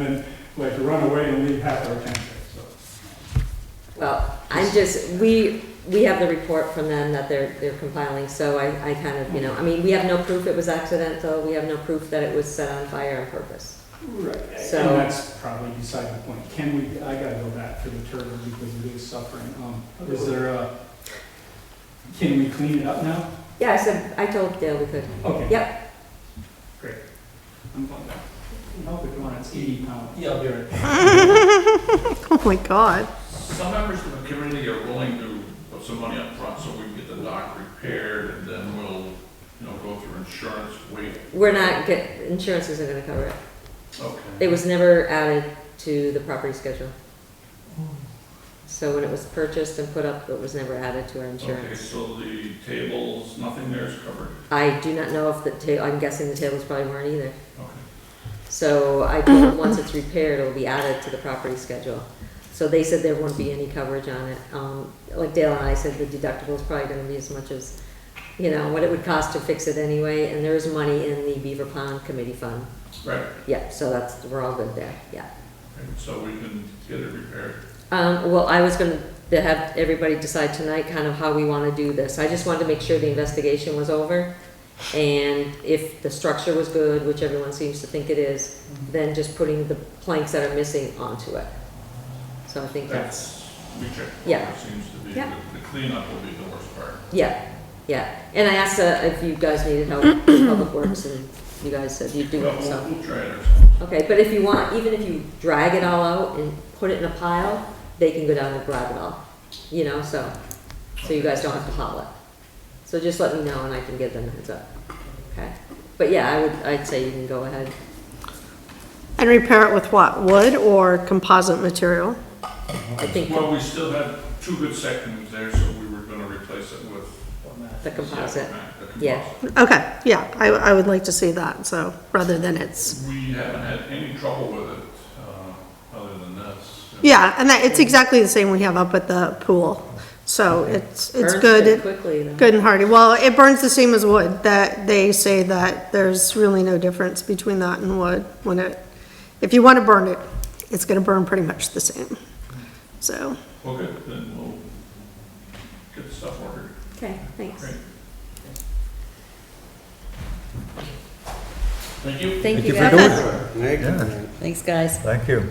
then like to run away and leave half our township, so. Well, I'm just, we, we have the report from them that they're, they're compiling, so I, I kind of, you know, I mean, we have no proof it was accidental, we have no proof that it was set on fire on purpose. Right. So- And that's probably beside the point. Can we, I gotta go back to the turtle because it is suffering. Um, is there a, can we clean it up now? Yeah, I said, I told Dale we could. Okay. Yep. Great. I'm going back. Help if you want, it's eighty pounds. Yeah, I'll be right back. Oh my God. Some members of the community are willing to put some money up front so we can get the dock repaired, and then we'll, you know, go through insurance, wait. We're not, get, insurance isn't gonna cover it. It Okay. was never added to the property schedule. So when it was purchased and put up, it was never added to our Okay, insurance. so the tables, nothing there is covered. I do not know if the ta, I'm guessing the tables probably weren't either. Okay. So I told them, once it's repaired, it'll be added to the property schedule. So they said there won't be any coverage on it. Um, like Dale and I said, the deductible is probably gonna be as much as, you know, what it would cost to fix it anyway, and there is money in the Beaver Pond Committee Fund. Right, Yeah, so that's, we're all good there, yeah. Okay, so we can get it repaired. Um, well, I was gonna have everybody decide tonight kind of how we wanna do this. I just wanted to make sure the investigation was over. And if the structure was good, which everyone seems to think it is, then just putting the planks that are missing onto it. So I think that's, That's, we checked. Yeah. It Seems to be, the Yeah. the cleanup will be the worst part. yeah, yeah. And I asked uh, if you guys needed help with public works and you guys said you'd do Well, it, we'll- so. We'll try it ourselves. Okay, but if you want, even if you drag it all out and put it in a pile, they can go down and grab it all, you know, so, so you guys don't have to haul it. So just let me know and I can give them a heads up, okay? But yeah, I would, I'd say you can go ahead. And repair it with what, wood or composite material? I think Well, we still have two good seconds there, so we were gonna replace it with. the composite, The Yeah. composite. Okay, yeah, I, I would like to see that, so, rather than it's, We haven't had any trouble with it, uh, other than this. yeah, and that, it's exactly the same we have up at the pool. So it's, it's burns good, pretty it- quickly though. good and hardy. Well, it burns the same as wood, that they say that there's really no difference between that and wood when it, if you want to burn it, it's going to burn pretty much the same. So, Okay, then we'll get the stuff ordered. Okay, thanks. Great. Thank you. Thank you for doing guys. it. Thank you. man. Thanks, guys. Thank you.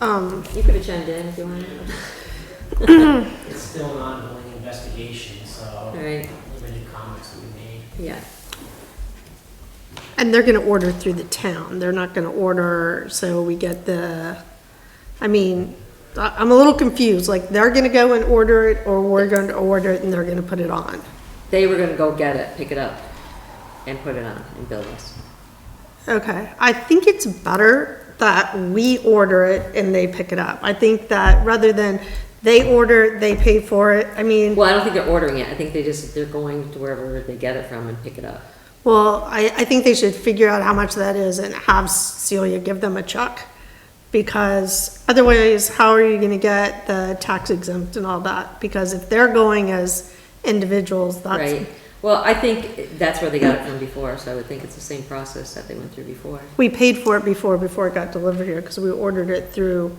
um, You could have chimed in if you wanted. It's still an ongoing investigation, so All right, limited comments will be made. yeah, And they're gonna order through the town, they're not gonna order, so we get the, I mean, I- I'm a little confused, like, they're gonna go and order it, or we're going to order it and they're gonna put it on. they were gonna go get it, pick it up and put it on and bill us. Okay, I think it's better that we order it and they pick it up. I think that rather than they order, they pay for it, I mean, Well, I don't think they're ordering it, I think they just, they're going to wherever they get it from and pick it up. well, I, I think they should figure out how much that is and have Celia give them a check. because otherwise, how are you gonna get the tax exempt and all that? Because if they're going as individuals, Right, that's, well, I think that's where they got it from before, so I would think it's the same process that they went through before. we paid for it before, before it got delivered here, because we ordered it through,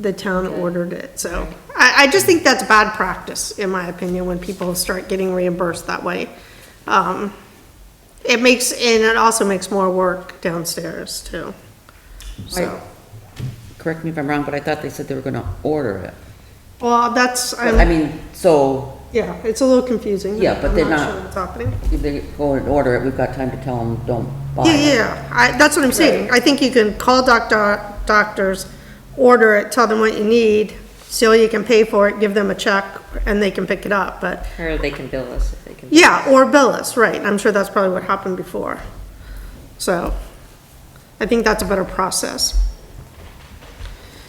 the town ordered it, so. I, I just think that's bad practice, in my opinion, when people start getting reimbursed that way. Um, it makes, and it also makes more work downstairs too, so. correct me if I'm wrong, but I thought they said they were gonna order it. Well, that's, But, I I'm, mean, so yeah, it's a little confusing. Yeah, but they're I'm not- sure what's happening. if they go and order it, we've got time to tell them, don't buy Yeah, it. yeah, I, that's what I'm saying. I think you can call doctor, doctors, order it, tell them what you need, so you can pay for it, give them a check, and they can pick it up, but, Or they can bill us if they can. yeah, or bill us, right, I'm sure that's probably what happened before. So, I think that's a better process.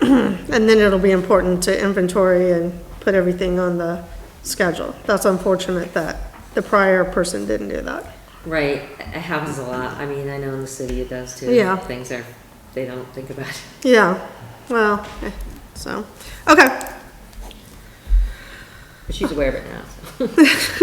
And then it'll be important to inventory and put everything on the schedule. That's unfortunate that the prior person didn't do that. Right, it happens a lot, I mean, I know in the city it does too. Yeah. Things are, they don't think about it. Yeah, well, eh, so, okay. But she's aware of it now, so.